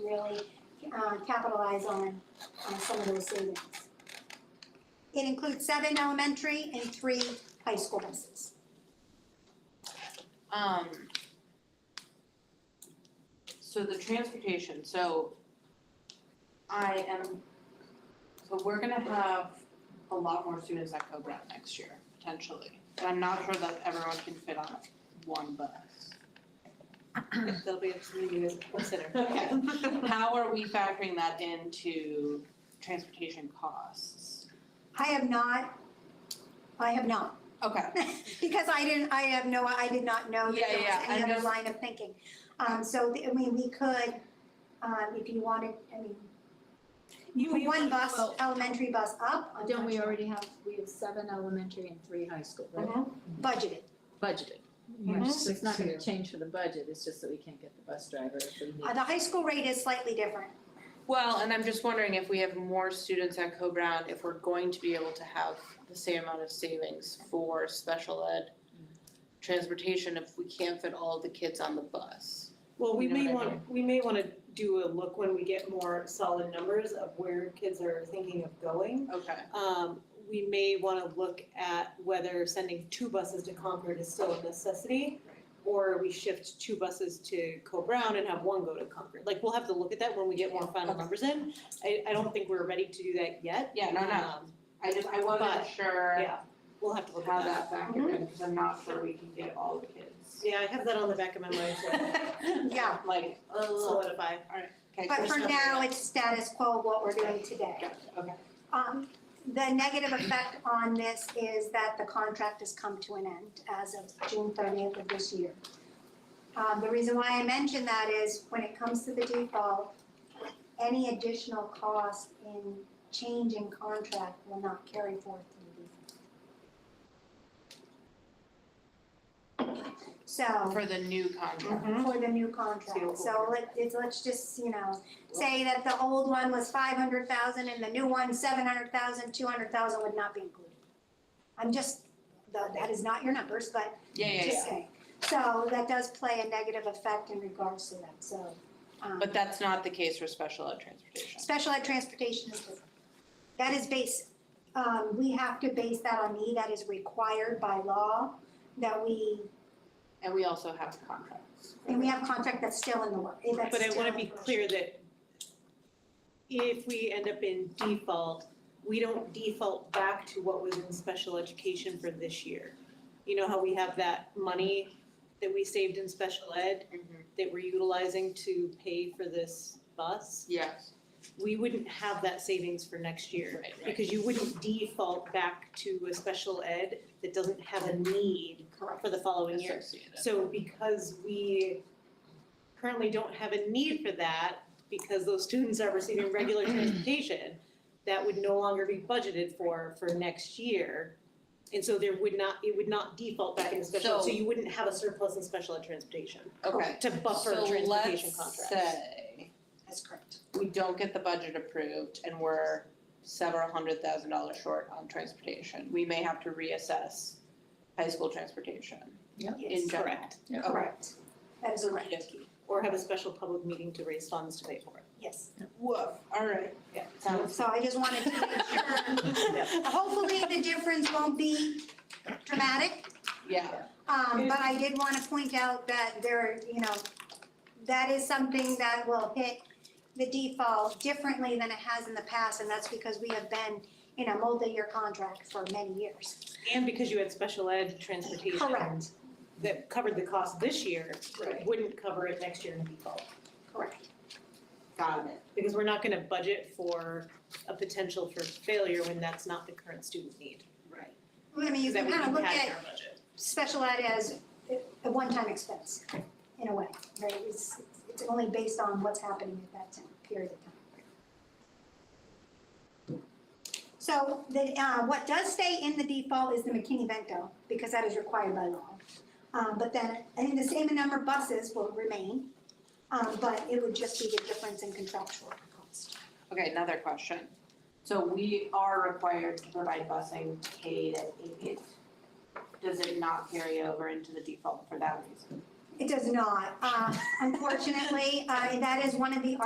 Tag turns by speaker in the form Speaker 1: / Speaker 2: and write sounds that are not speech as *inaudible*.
Speaker 1: uh, capitalize on, on some of those savings. It includes seven elementary and three high school buses.
Speaker 2: Um. So the transportation, so I am, so we're gonna have a lot more students at co next year, potentially. And I'm not sure that everyone can fit on one bus. If There'll be something you guys consider. Okay. How are we factoring that into transportation costs?
Speaker 1: I have not, I have not, *laughs*
Speaker 2: Okay,
Speaker 1: because I didn't, I have no, I did not know that
Speaker 2: Yeah,
Speaker 1: there
Speaker 2: yeah,
Speaker 1: was
Speaker 2: I
Speaker 1: any other
Speaker 2: just-
Speaker 1: line of thinking. Um, so, the- I mean, we could, um, if you wanted, I mean,
Speaker 3: You,
Speaker 1: put one bus,
Speaker 4: well-
Speaker 1: elementary bus up, I'm
Speaker 4: Don't we
Speaker 1: not sure.
Speaker 4: already have, we have seven elementary and three high school, right?
Speaker 1: budgeted.
Speaker 4: Budgeted.
Speaker 2: Mhm.
Speaker 4: So It's not gonna change for the budget, it's just that we can't get the bus driver if we need.
Speaker 1: Uh, the high school rate is slightly
Speaker 3: *clears throat*
Speaker 1: different.
Speaker 2: Well, and I'm just wondering if we have more students at Co-Brown, if we're going to be able to have the same amount of savings for special ed transportation if we can't fit all the kids on the bus.
Speaker 5: Well, we
Speaker 2: You know
Speaker 5: may
Speaker 2: what I
Speaker 5: want, we may wanna do a look when we get more solid numbers of where kids are thinking of going.
Speaker 2: Okay.
Speaker 5: Um, we may wanna look at whether sending two buses to Concord is still a necessity. Or we shift two buses to Co-Brown and have one go to Concord, like, we'll have to look at that when we get more final
Speaker 2: Okay.
Speaker 5: numbers in. I, I don't think we're ready to do that yet.
Speaker 2: Yeah, no, no,
Speaker 5: Um,
Speaker 2: I just, I wasn't
Speaker 5: But,
Speaker 2: sure
Speaker 5: yeah, we'll have to look at
Speaker 2: how that factored in, because I'm not sure we can get all the *laughs* kids.
Speaker 5: Yeah, I have that on the back of my mind
Speaker 2: *laughs*
Speaker 5: to
Speaker 1: Yeah,
Speaker 2: Like, ugh.
Speaker 5: solidify.
Speaker 2: Okay,
Speaker 1: but
Speaker 2: so-
Speaker 1: for now, it's status quo of what we're doing today.
Speaker 2: Gotcha, Okay,
Speaker 1: Um, the negative effect on this is that the contract has come to an end as of June thirtieth of this year. Um, the reason why I mention that is when it comes to the default, any additional cost in changing contract will not carry forth to the default. So.
Speaker 2: for the new contract.
Speaker 1: for the new contract, so let, it's, let's just, you know, say that the old one was five hundred thousand and the new one seven hundred thousand, two hundred thousand would not be included. I'm just, tha- that is not your numbers, but
Speaker 2: Yeah, yeah,
Speaker 1: just
Speaker 2: yeah,
Speaker 1: saying, so that does play a negative effect in regards to that, so. um,
Speaker 2: but that's not the case for special ed transportation.
Speaker 1: Special ed transportation is different. That is base, um, we have to base that on need, that is required by law, that we,
Speaker 2: And we also have contracts.
Speaker 1: and we have contract that's still in the work, eh, that's
Speaker 5: But I
Speaker 1: still
Speaker 5: wanna
Speaker 1: in
Speaker 5: be
Speaker 1: the works.
Speaker 5: clear that if we end up in default, we don't default back to what was in special education for this year. You know how we have that money that we saved in special ed
Speaker 2: Mhm.
Speaker 5: that we're utilizing to pay for this bus?
Speaker 2: Yes,
Speaker 5: We wouldn't have that savings for next year.
Speaker 2: right, right.
Speaker 5: Because you wouldn't default back to a special ed that doesn't have a need
Speaker 1: Correct.
Speaker 5: for the following year.
Speaker 2: Associated.
Speaker 5: So because we currently don't have a need for that, because those students are receiving regular transportation, that would no longer be budgeted for, for next year. And so there would not, it would not default back into special, ed, so
Speaker 2: So-
Speaker 5: you wouldn't have a surplus in special ed transportation
Speaker 2: Okay.
Speaker 5: to buffer transportation contracts.
Speaker 2: So let's say
Speaker 1: That's correct.
Speaker 2: we don't get the budget approved and we're several hundred thousand dollars short on transportation. We may have to reassess high school transportation in
Speaker 1: Yes,
Speaker 2: general.
Speaker 5: correct.
Speaker 4: Yeah.
Speaker 2: Okay.
Speaker 1: correct. That is correct,
Speaker 2: Okey-dokey.
Speaker 5: Or have a special public meeting to raise funds to pay for it.
Speaker 1: yes.
Speaker 2: Woof, all right, yeah, sounds.
Speaker 1: So I just wanted to make sure, hopefully the difference won't be dramatic.
Speaker 2: Yeah,
Speaker 1: Um, but I did want to point out that there, you know, that is something that will hit the default differently than it has in the past. And that's because we have been in a multi-year contract for many years.
Speaker 5: And because you had special ed transportation
Speaker 1: Correct,
Speaker 5: that covered the cost this year,
Speaker 2: Right.
Speaker 5: wouldn't cover it next year in default.
Speaker 1: correct.
Speaker 2: got it.
Speaker 5: because we're not gonna budget for a potential for failure when that's not the current student need.
Speaker 2: Right.
Speaker 1: I mean, you
Speaker 5: That
Speaker 1: can
Speaker 5: we
Speaker 1: kind of
Speaker 5: can
Speaker 1: look
Speaker 5: pad
Speaker 1: at
Speaker 5: in our budget.
Speaker 1: special ed as a one-time expense, in a way, right? It's, it's only based on what's happening at that time, period of time. So the, uh, what does stay in the default is the McKinney-Vento, because that is required by law. Um, but then, I think the same number of buses will remain, um, but it would just be the difference in contractual cost.
Speaker 2: Okay, another question. So we are required to provide busing K to eight. Does it not carry over into the default for that reason?
Speaker 1: It does not, uh, unfortunately, uh, that is one of the